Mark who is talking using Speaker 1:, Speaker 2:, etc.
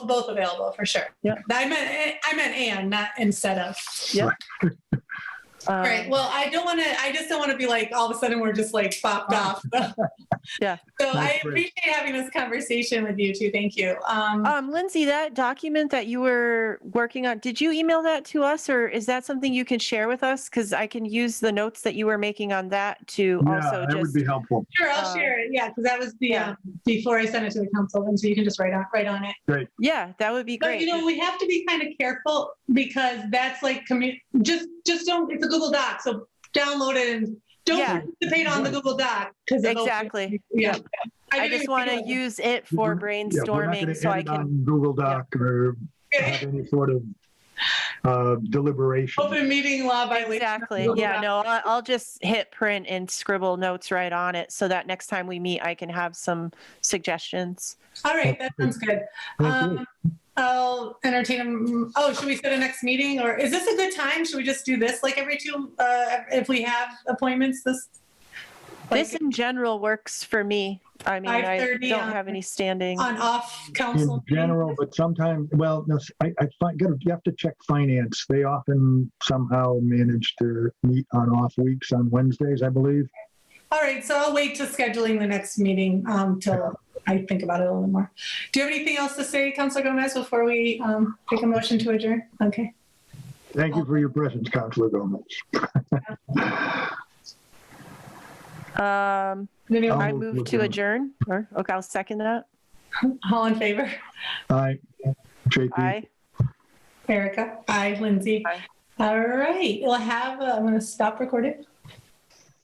Speaker 1: both available for sure.
Speaker 2: Yeah.
Speaker 1: I meant, eh, I meant and, not instead of.
Speaker 2: Um,
Speaker 1: All right. Well, I don't want to, I just don't want to be like, all of a sudden we're just like popped off.
Speaker 2: Yeah.
Speaker 1: So I
Speaker 3: That's great.
Speaker 1: appreciate having this conversation with you too. Thank you. Um,
Speaker 2: Um, Lindsay, that document that you were working on, did you email that to us or is that something you can share with us? Because I can use the notes that you were making on that to
Speaker 3: Yeah,
Speaker 2: also
Speaker 3: that would
Speaker 2: just,
Speaker 3: be helpful.
Speaker 1: sure. I'll
Speaker 2: uh,
Speaker 1: share it. Yeah. Cause that was the,
Speaker 2: yeah.
Speaker 1: um, before I sent it to the council. And so you can just write on, write on it.
Speaker 2: yeah, that would be
Speaker 1: But you
Speaker 2: great.
Speaker 1: know, we have to be kind of careful because that's like, commu- just, just don't, it's a Google doc. So download it and don't
Speaker 2: Yeah.
Speaker 1: participate on the Google doc. Cause it'll-
Speaker 2: Exactly.
Speaker 1: Yeah.
Speaker 2: I
Speaker 1: didn't
Speaker 2: just
Speaker 1: even
Speaker 2: want
Speaker 1: think
Speaker 2: to
Speaker 1: of-
Speaker 2: use it for
Speaker 3: Mm-hmm. Yeah, we're not gonna
Speaker 2: brainstorming so I
Speaker 3: end
Speaker 2: can,
Speaker 3: on Google Doc or have any sort of uh, deliberation.
Speaker 1: Open meeting law violation.
Speaker 2: exactly.
Speaker 1: Google
Speaker 2: Yeah,
Speaker 1: Doc.
Speaker 2: no, I- I'll just hit print and scribble notes right on it so that next time we meet, I can have some suggestions.
Speaker 1: All right, that sounds good.
Speaker 3: Thank you.
Speaker 1: Um, I'll entertain them. Oh, should we set a next meeting or is this a good time? Should we just do this like every two, uh, if we have appointments this? like,
Speaker 2: This in general works for me. I mean, I
Speaker 1: 5:30
Speaker 2: don't
Speaker 1: on-
Speaker 2: have any standing.
Speaker 1: On off
Speaker 3: In
Speaker 1: council?
Speaker 3: general, but sometimes, well, no, I, I find, gotta- you have to check finance. They often somehow manage to meet on off weeks on Wednesdays, I believe.
Speaker 1: All right, so I'll wait to scheduling the next meeting, um, till I think about it a little more. Do you have anything else to say, Councilor Gomez, before we, um, take a motion to adjourn? Okay.
Speaker 3: Thank you for your presence, Counselor Gomez.
Speaker 2: Um,
Speaker 1: Did anyone-
Speaker 2: I
Speaker 3: I'll
Speaker 2: move
Speaker 3: move
Speaker 2: to
Speaker 3: to
Speaker 2: adjourn, or, okay, I'll second that.
Speaker 3: Um,
Speaker 1: All in favor?
Speaker 3: Aye. JP,
Speaker 2: Aye.
Speaker 1: Erica? Aye. Lindsay?
Speaker 2: Aye.
Speaker 1: All right, we'll have, uh, I'm gonna stop recording.